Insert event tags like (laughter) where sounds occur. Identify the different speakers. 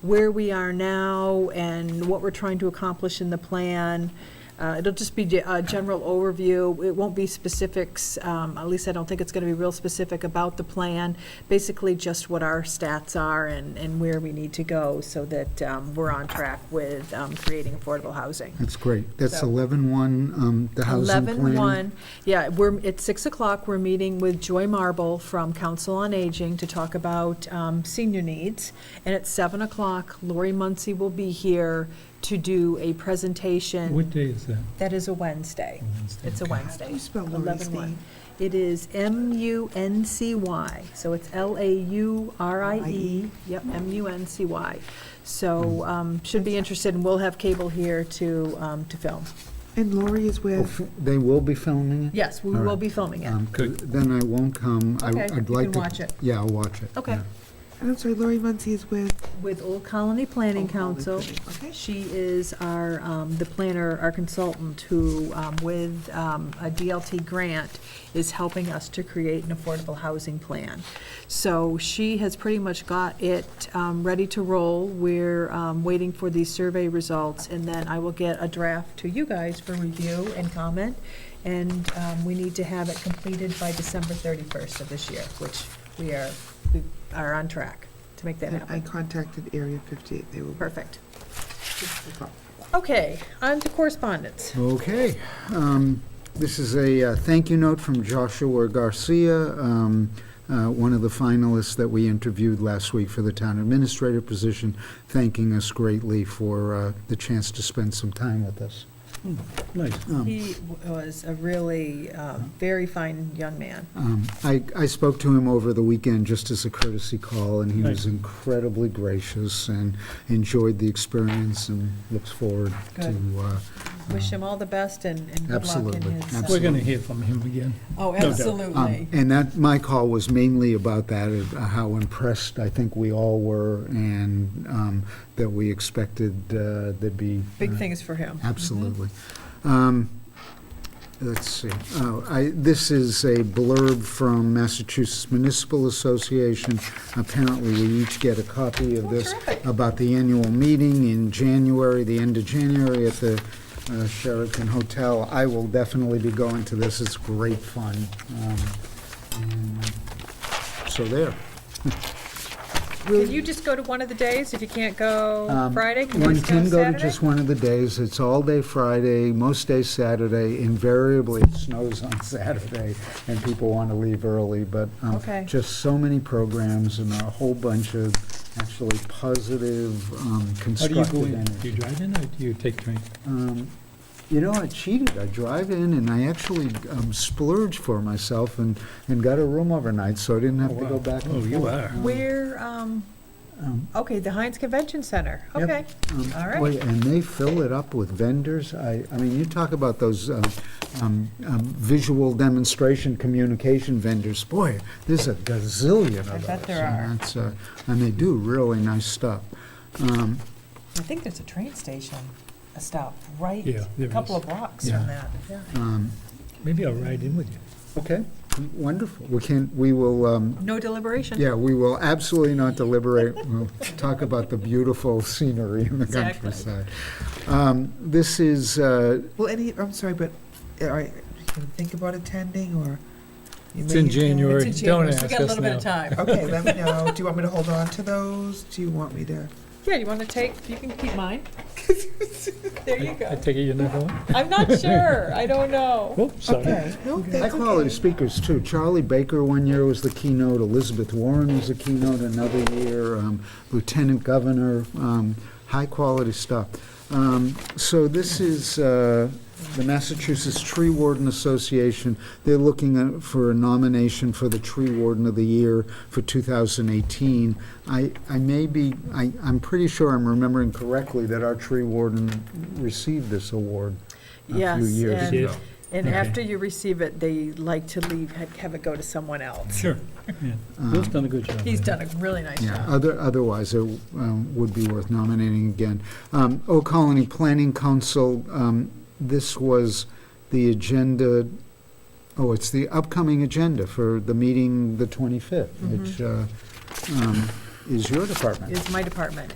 Speaker 1: where we are now and what we're trying to accomplish in the plan. Uh, It'll just be ge- a general overview. It won't be specifics, um, at least I don't think it's going to be real specific about the plan. Basically, just what our stats are and and where we need to go so that um, we're on track with um, creating affordable housing.
Speaker 2: That's great. That's
Speaker 1: So-
Speaker 2: 11-1, um, the housing plan.
Speaker 1: Eleven one, yeah, we're, at 6 o'clock, we're meeting with Joy Marble from Council on Aging to talk about um, senior needs. And at 7 o'clock, Lori Muncy will be here to do a presentation.
Speaker 3: What day is that?
Speaker 1: That is a Wednesday.
Speaker 3: Wednesday?
Speaker 1: It's a Wednesday.
Speaker 4: you spell Lori's
Speaker 1: 11 one.
Speaker 4: name?
Speaker 1: It is M-U-N-C-Y, so it's
Speaker 4: E?
Speaker 1: L-A-U-R-I-E, E. yep, M-U-N-C-Y. So um, should be interested, and we'll have cable here to, um, to film.
Speaker 4: And Lori is
Speaker 2: Oh,
Speaker 4: with,
Speaker 2: f- They will be filming it?
Speaker 1: Yes, we
Speaker 2: All
Speaker 1: will
Speaker 2: right.
Speaker 1: be filming it.
Speaker 2: Um, 'cause Then I won't come. I-
Speaker 1: Okay, you
Speaker 2: I'd like
Speaker 1: can
Speaker 2: to.
Speaker 1: watch it.
Speaker 2: Yeah, I'll watch it.
Speaker 1: Okay.
Speaker 2: yeah.
Speaker 4: I'm sorry, Lori Muncy is with,
Speaker 1: with Old Colony Planning
Speaker 3: Oh,
Speaker 4: Old Colony
Speaker 1: Council.
Speaker 4: Planning, okay.
Speaker 1: She is our, um, the planner, our consultant, who, um, with um, a DLT grant, is helping us to create an affordable housing plan. So she has pretty much got it um, ready to roll. We're um, waiting for these survey results, and then I will get a draft to you guys for review and comment. And um, we need to have it completed by December 31st of this year, which we are, we are on track to make that
Speaker 4: and
Speaker 1: happen.
Speaker 4: I contacted Area 58, they will.
Speaker 1: Perfect. Okay, on to correspondence.
Speaker 2: Okay. um, This is a uh, thank you note from Joshua Garcia, um, uh, one of the finalists that we interviewed last week for the town administrator position, thanking us greatly for uh, the chance to spend some time with us.
Speaker 3: Nice.
Speaker 2: Um,
Speaker 1: He was a really uh, very fine young man.
Speaker 2: Um, I, I spoke to him over the weekend just as a courtesy call, and he was incredibly gracious and enjoyed the experience and looks forward to, uh,
Speaker 1: Wish him all the best and and good luck in
Speaker 2: Absolutely,
Speaker 1: his.
Speaker 3: We're
Speaker 1: uh,
Speaker 2: absolutely.
Speaker 3: going to hear from him again.
Speaker 1: Oh,
Speaker 3: doubt.
Speaker 1: absolutely.
Speaker 2: um, and that, my call was mainly about that, uh, how impressed I think we all were, and um, that we expected uh, there'd be.
Speaker 1: Big
Speaker 2: uh,
Speaker 1: things for him.
Speaker 2: Absolutely. Um, Let's see, Oh, I- this is a blurb from Massachusetts Municipal Association. Apparently, we each get a copy of
Speaker 1: Oh,
Speaker 2: this
Speaker 1: terrific.
Speaker 2: about the annual meeting in January, the end of January at the uh, Sheraton Hotel. I will definitely be going to this, it's great fun. Um, and uh, So there.
Speaker 1: Can you just go to one of the days if you can't go
Speaker 2: Um,
Speaker 1: Friday? Can you
Speaker 2: One
Speaker 1: just go
Speaker 2: can go to
Speaker 1: Saturday?
Speaker 2: just one of the days, it's all day Friday, most days Saturday, invariably it snows (laughs) on Saturday, and people want to leave early, but um,
Speaker 1: Okay.
Speaker 2: just so many programs and a whole bunch of actually positive, um,
Speaker 3: How do you
Speaker 2: constructive
Speaker 3: go in?
Speaker 2: energy.
Speaker 3: Do you drive in or do you take train?
Speaker 2: Um, You know, I cheated. I drive in and I actually um, splurged for myself and, and got a room overnight, so I didn't have to go back and
Speaker 3: Oh,
Speaker 2: forth.
Speaker 3: you are.
Speaker 1: Where, um,
Speaker 2: Um,
Speaker 1: okay, the Heinz Convention Center.
Speaker 2: Yep.
Speaker 1: Okay,
Speaker 2: Um,
Speaker 1: All right.
Speaker 2: boy, And they fill it up with vendors. I, I mean, you talk about those um, um, um, visual demonstration communication vendors. Boy, there's a gazillion of those.
Speaker 1: I bet there
Speaker 2: and
Speaker 1: are.
Speaker 2: that's, uh, And they do really nice stuff. Um,
Speaker 1: I think there's a train station, a stop, right?
Speaker 3: Yeah, there
Speaker 1: A couple
Speaker 3: is.
Speaker 1: of blocks from
Speaker 2: Yeah.
Speaker 1: that. Yeah.
Speaker 2: um,
Speaker 3: Maybe I'll ride in with you.
Speaker 2: Okay, wonderful. We can, we will, um,
Speaker 1: No deliberation.
Speaker 2: yeah, we will absolutely not
Speaker 1: (laughs)
Speaker 2: deliberate. We'll talk about the beautiful scenery in the
Speaker 1: Exactly.
Speaker 2: countryside. Um, This is, uh,
Speaker 4: Well, any, I'm sorry, but uh, are, you can think about attending, or? you
Speaker 3: It's
Speaker 4: may
Speaker 3: in
Speaker 4: attend?
Speaker 3: January.
Speaker 1: It's in
Speaker 3: Don't
Speaker 1: January, so we
Speaker 3: ask
Speaker 1: got a
Speaker 3: us
Speaker 1: little bit of
Speaker 3: now.
Speaker 1: time.
Speaker 4: Okay, let me know, do you want me to hold on to those? Do you want me to?
Speaker 1: Yeah, you want to take, you can keep mine. There you
Speaker 3: I
Speaker 1: go.
Speaker 3: take it you're not going?
Speaker 1: I'm not sure. I don't know.
Speaker 3: Oops, sorry.
Speaker 4: Okay, no, that's okay.
Speaker 2: High-quality speakers, too. Charlie Baker one year was the keynote, Elizabeth Warren was the keynote another year, um, Lieutenant Governor, um, high-quality stuff. Um, So this is uh, the Massachusetts Tree Warden Association. They're looking at- for a nomination for the Tree Warden of the Year for 2018. I, I may be, I, I'm pretty sure I'm remembering correctly that our tree warden received this award a few
Speaker 1: Yes,
Speaker 2: years
Speaker 1: and-
Speaker 2: ago.
Speaker 1: And
Speaker 3: Okay.
Speaker 1: after you receive it, they like to leave, ha- have it go to someone else.
Speaker 2: (laughs)
Speaker 3: Sure. Yeah. Bill's done a good job.
Speaker 1: He's
Speaker 3: there.
Speaker 1: done a really nice
Speaker 2: Yeah,
Speaker 1: job.
Speaker 2: other, otherwise, it um, would be worth nominating again. Um, Old Colony Planning Council, um, this was the agenda, oh, it's the upcoming agenda for the
Speaker 1: Mm-hmm.
Speaker 2: meeting, the 25th, which uh, um, is your department.
Speaker 1: It's my department.